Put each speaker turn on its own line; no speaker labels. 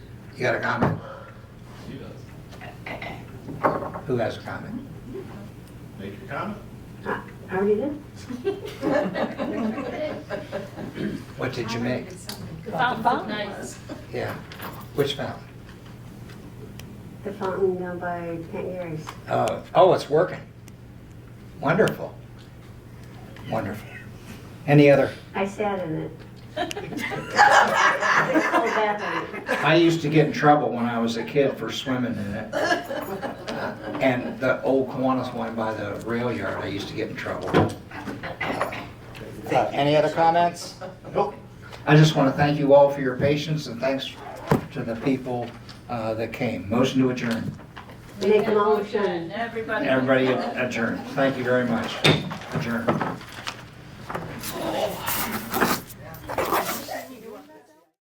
You got a comment? Who has a comment?
Make your comment.
Already did?
What did you make?
The fountain's look nice.
Yeah. Which fountain?
The fountain down by Aunt Gary's.
Oh, oh, it's working. Wonderful. Wonderful. Any other?
I sat in it. I was so bad in it.
I used to get in trouble when I was a kid for swimming in it. And the old Kiwanis one by the rail yard, I used to get in trouble.
Uh, Any other comments?
Nope.
I just want to thank you all for your patience and thanks to the people uh, that came. Motion to adjourn.
Make them all shine.
Everybody.
Everybody adjourn. Thank you very much. Adjourn.